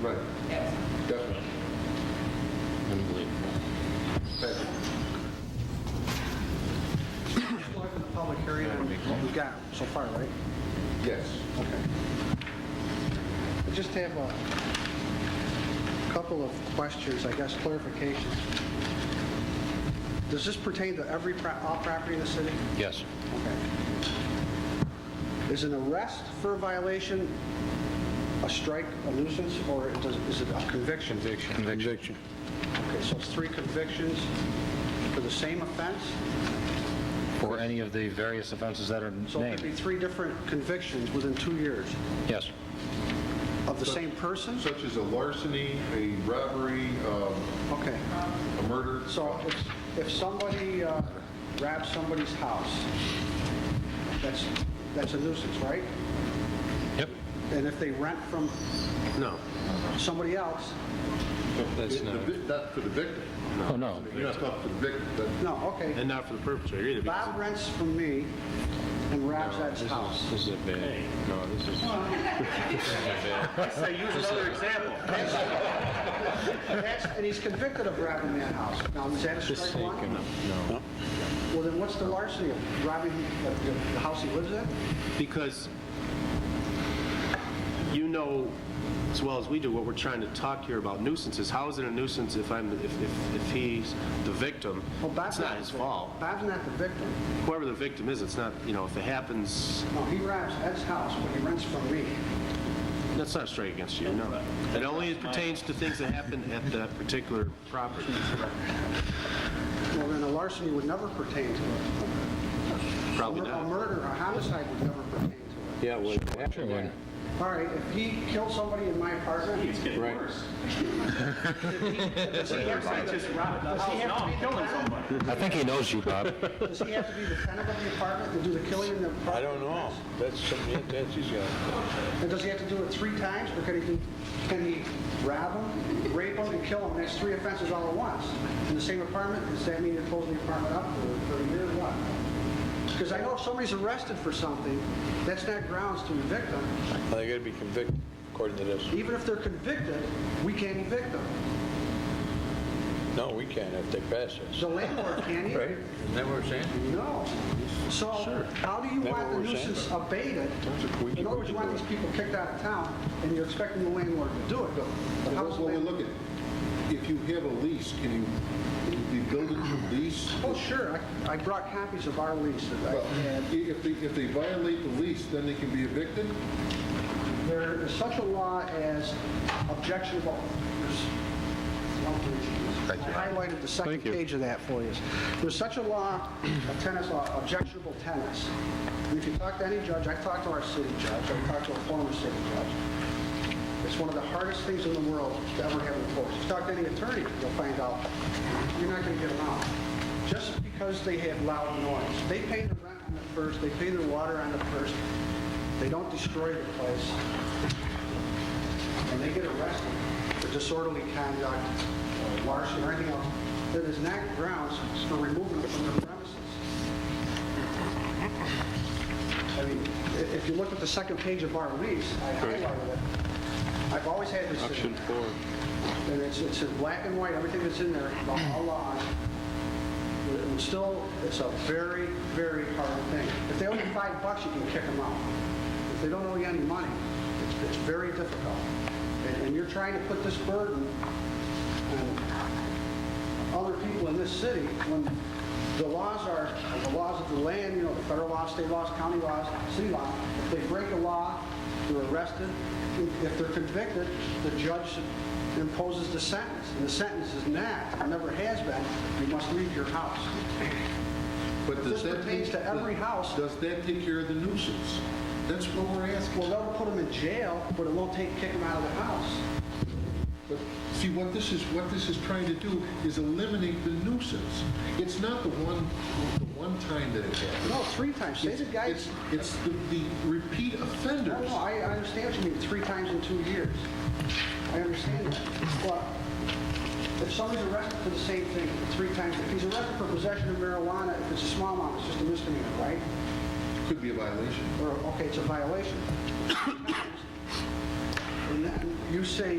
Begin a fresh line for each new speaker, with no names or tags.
Right,
Yes.
definitely.
Unbelievable.
Thank you.
Live in the public hearing, and we got so far, right?
Yes.
Okay. I just have a couple of questions, I guess clarifications. Does this pertain to every, pro- all property in the city?
Yes.
Okay. Is an arrest for a violation a strike, a nuisance, or does- is it a conviction?
Conviction.
Okay, so it's three convictions for the same offense?
For any of the various offenses that are
So it could be
named.
three different convictions within two years
Yes.
of the same person?
Such as a larceny, a robbery, um,
Okay,
a murder.
so if, if somebody uh, grabs somebody's house, that's, that's a nuisance, right?
Yep.
And if they rent from
No,
somebody else,
that's
It-
not,
the vic- Not for the victim.
Oh, no.
You're not talking for the victim, but
no, okay.
and not for the perpetrator either. because
Bob rents from me and robs that
this is-
house.
This is a bad, no, this is.
Say, use another example. And he's convicted of robbing that house. Now, is that a
Just
strike
thinking,
one?
no.
Well, then what's the larceny of robbing the the house he lives in?
Because you know as well as we do what we're trying to talk here about nuisances. How is it a nuisance if I'm, if, if if he's the victim?
Well, Bob's
It's not his
the-
fault.
Bob's not the victim.
Whoever the victim is, it's not, you know, if it happens,
No, he robs Ed's house, but he rents from me.
that's not straight against you, no. It only pertains to things that happen at that particular property.
Well, then a larceny would never pertain to it.
Probably
A
not.
murder, a homicide would never pertain to
Yeah, well.
it. All right, if he killed somebody in my apartment, does he
Right.
have to be the- does he have to be the tenant?
I think he knows you, Bob.
Does he have to be the tenant of the apartment to do the killing in the apartment? I don't know.
That's something, that's his guy.
And does he have to do it three times, or can he, do- can he rob him, rape him, and kill him? That's three offenses all at once, in the same apartment? Does that mean you're closing the apartment up for for a year or what? Because I know if somebody's arrested for something, that's not grounds to evict them.
They gotta be convicted according to this.
Even if they're convicted, we can't evict them.
No, we can't if they pass this.
The landlord can't
Right?
either.
Isn't that what we're saying?
No. So how do you
That's
want
what
the
we're saying.
nuisance abated?
a quickie,
In other words, you want these people kicked out of town, and you're expecting the landlord to do it. But how
that's
does
what we're
land-
looking at. If you have a lease, can you, the building should lease?
Oh, sure, I- I brought copies of our lease that
Well,
I had.
i- If they, if they violate the lease, then they can be evicted?
There is such a law as objectionable. There's one for each of these. I highlighted the second page of that for you. There's such a law, a tennis law, objectionable tennis. And if you talk to any judge, I've talked to our city judge, I've talked to a former city judge. It's one of the hardest things in the world to ever have enforced. If you talk to any attorney, you'll find out, you're not going to get along. Just because they have loud noise. They pay their rent on the first, they pay their water on the first, they don't destroy the place, and they get arrested for disorderly conduct, or larceny, or anything else, that is not grounds for removing them from their premises. I mean, i- if you look at the second page of our lease, I highlighted it. I've always had this. Option four. And it's, it's in black and white, everything that's in there, the all laws. But it would still, it's a very, very hard thing. If they owe you five bucks, you can kick them out. If they don't owe you any money, it's, it's very difficult. And, and you're trying to put this burden on other people in this city when the laws are, the laws of the land, you know, the federal laws, state laws, county laws, city law. If they break a law, they're arrested. If they're convicted, the judge imposes the sentence. And the sentence is not, or never has been, you must leave your house.
But does
This
that
pertains
take-
to every house.
Does that take care of the nuisance? That's what we're asking.
Well, that'll put them in jail, but it won't take, kick them out of the house.
But see, what this is, what this is trying to do is eliminate the nuisance. It's not the one, the one time that it happens.
No, three times. Say the
It's,
guy's,
it's the the repeat
I
offenders.
don't know, I I understand what you mean, three times in two years. I understand that. But if somebody's arrested for the same thing three times, if he's arrested for possession of marijuana, if it's a small amount, it's just a misdemeanor, right?
Could be a violation.
Or, okay, it's a violation. And then you say